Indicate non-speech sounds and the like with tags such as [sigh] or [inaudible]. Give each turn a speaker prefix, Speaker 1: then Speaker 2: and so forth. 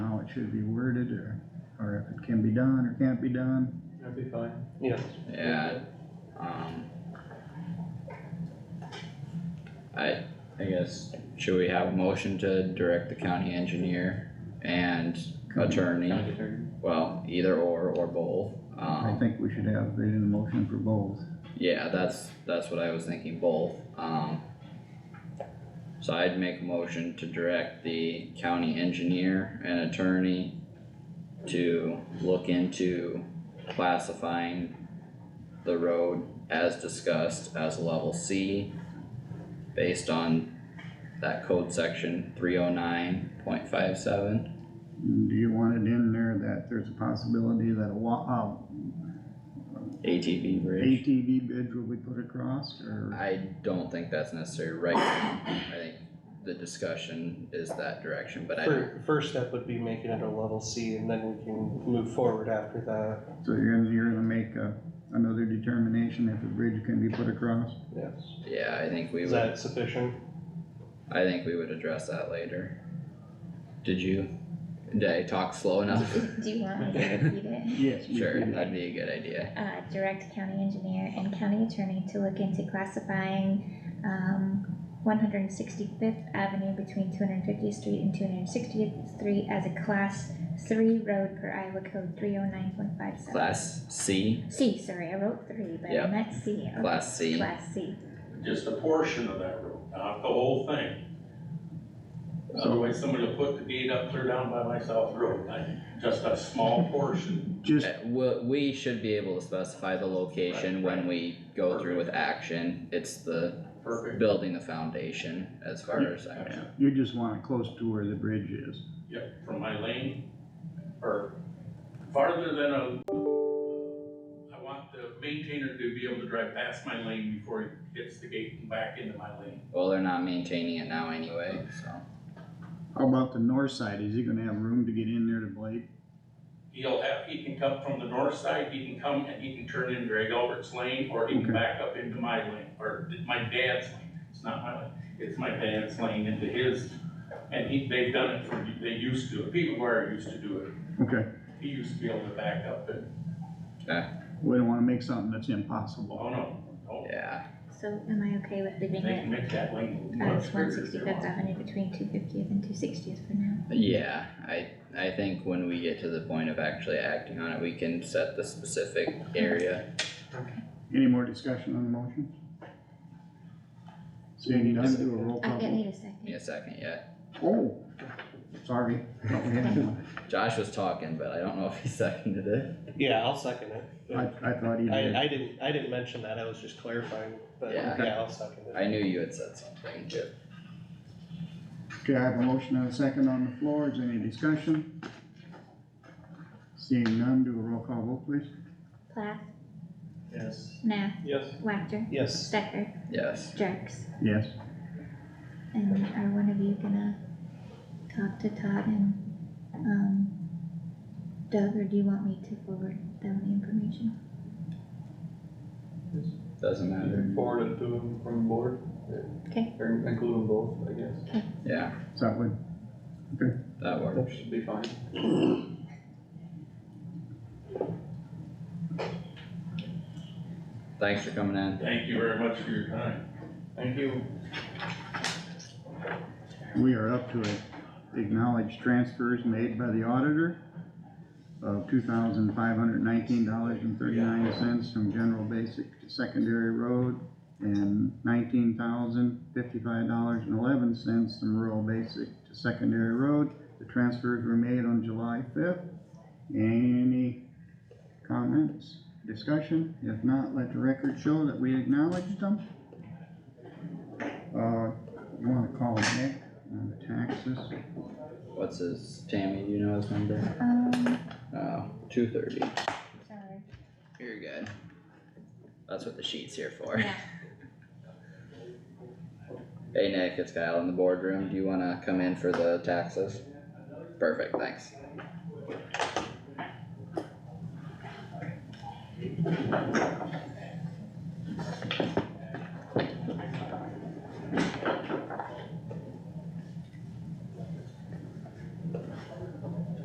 Speaker 1: should be worded, or, or if it can be done or can't be done.
Speaker 2: That'd be fine.
Speaker 3: Yes.
Speaker 4: Yeah, um. I, I guess, should we have a motion to direct the county engineer and attorney,
Speaker 2: County attorney.
Speaker 4: well, either or, or both,
Speaker 1: I
Speaker 4: um,
Speaker 1: think we should have the motion for both.
Speaker 4: yeah, that's, that's what I was thinking, both, um. So I'd make a motion to direct the county engineer and attorney to look into classifying the road as discussed as level C based on that code section three oh nine point five seven.
Speaker 1: Do you want it in there that there's a possibility that a wa,
Speaker 4: ATV
Speaker 1: uh,
Speaker 4: bridge.
Speaker 1: ATV bridge will be put across, or?
Speaker 4: I don't think that's necessary right now. I think the discussion is that direction, but I don't.
Speaker 3: Fir- first step would be making it a level C and then we can move forward after that,
Speaker 1: So you're gonna, you're gonna make a, another determination if a bridge can be put across?
Speaker 3: yes.
Speaker 4: Yeah, I think we
Speaker 3: Is
Speaker 4: would,
Speaker 3: that sufficient?
Speaker 4: I think we would address that later. Did you, did I talk slow enough?
Speaker 3: [laughs]
Speaker 5: Do you want me to repeat
Speaker 4: [laughs]
Speaker 5: it?
Speaker 1: Yes. we
Speaker 4: Sure,
Speaker 1: could.
Speaker 4: that'd be a good idea.
Speaker 5: Uh, direct county engineer and county attorney to look into classifying, um, one hundred and sixty-fifth Avenue between two hundred and fiftieth street and two hundred and sixtieth street as a class three road per Iowa code three oh nine point five seven.
Speaker 4: Class C,
Speaker 5: C, sorry, I wrote three, but I
Speaker 4: Yep.
Speaker 5: meant C. Okay,
Speaker 4: class C,
Speaker 5: Class C.
Speaker 6: just a portion of that road, not the whole thing. Otherwise, somebody will put the gate up clear down by my south road, I- just a small portion.
Speaker 1: Just,
Speaker 4: Uh, we, we should be able to specify the location when we go through with action. It's the
Speaker 6: Perfect.
Speaker 4: building the foundation as far as I'm concerned.
Speaker 1: you just want it close to where the bridge is.
Speaker 6: Yep, from my lane, or farther than a, I want the maintainer to be able to drive past my lane before he hits the gate and back into my lane.
Speaker 4: Well, they're not maintaining it now anyway, so.
Speaker 1: How about the north side, is he gonna have room to get in there to blade?
Speaker 6: He'll have, he can come from the north side, he can come and he can turn in Greg Albert's lane, or he
Speaker 1: Okay.
Speaker 6: can back up into my lane, or my dad's lane. It's not my lane, it's my dad's lane into his, and he, they've done it for, they used to, Pete McGuire used to do it.
Speaker 1: Okay,
Speaker 6: He used to be able to back up and,
Speaker 1: we don't wanna make something that's impossible.
Speaker 6: oh no, no,
Speaker 4: Yeah,
Speaker 5: So am I okay with
Speaker 6: they
Speaker 5: leaving
Speaker 6: can
Speaker 5: it
Speaker 6: make that lane much
Speaker 5: as
Speaker 6: bigger
Speaker 5: one
Speaker 6: if they
Speaker 5: sixty-fifth
Speaker 6: want.
Speaker 5: Avenue between two fiftieth and two sixtieth for now?
Speaker 4: yeah, I, I think when we get to the point of actually acting on it, we can set the specific area.
Speaker 1: Any more discussion on the motion? Seeing none, do a roll
Speaker 5: I
Speaker 4: Um,
Speaker 1: call.
Speaker 5: can't
Speaker 1: vote.
Speaker 5: need a second.
Speaker 4: Give me a second yet.
Speaker 1: Oh, sorry. thought we had one.
Speaker 4: Josh was talking, but I don't know if he [laughs] seconded it.
Speaker 3: [laughs] Yeah, I'll second it.
Speaker 1: I, I thought he
Speaker 3: I,
Speaker 1: did.
Speaker 3: I didn't, I didn't mention that, I was just clarifying, but
Speaker 4: Yeah.
Speaker 3: yeah, I'll second it.
Speaker 4: I knew you had said something. Chip.
Speaker 1: Okay, I have a motion and a second on the floor, is there any discussion? Seeing none, do a roll call vote please.
Speaker 5: Plath,
Speaker 3: Yes.
Speaker 5: Nah,
Speaker 2: Yes.
Speaker 5: Whacker,
Speaker 3: Yes,
Speaker 5: Stecker,
Speaker 4: Yes,
Speaker 5: Jerks.
Speaker 1: Yes.
Speaker 5: And are one of you gonna talk to Todd and, um, Doug, or do you want me to forward them the information?
Speaker 4: doesn't matter.
Speaker 2: Forward it to them from board.
Speaker 5: Okay.
Speaker 2: Or include them both, I guess.
Speaker 4: Yeah,
Speaker 1: So that would,
Speaker 4: that
Speaker 2: That
Speaker 4: works.
Speaker 2: should be fine.
Speaker 4: Thanks for coming in.
Speaker 6: Thank you very much for your time.
Speaker 2: Thank you.
Speaker 1: we are up to acknowledge transfers made by the auditor of two thousand five hundred nineteen dollars and thirty-nine cents from general basic to secondary road and nineteen thousand fifty-five dollars and eleven cents from rural basic to secondary road. The transfers were made on July fifth. Any comments, discussion? If not, let the record show that we acknowledged them. Uh, you wanna call Nick on uh, the taxes?
Speaker 4: What's his, Tammy, do you know his number?
Speaker 5: Um,
Speaker 4: Oh, two thirty.
Speaker 5: sorry.
Speaker 4: You're good. That's what the sheet's here for.
Speaker 5: Yeah.
Speaker 4: Hey Nick, it's Kyle in the boardroom. Do you wanna come in for the taxes? Perfect, thanks.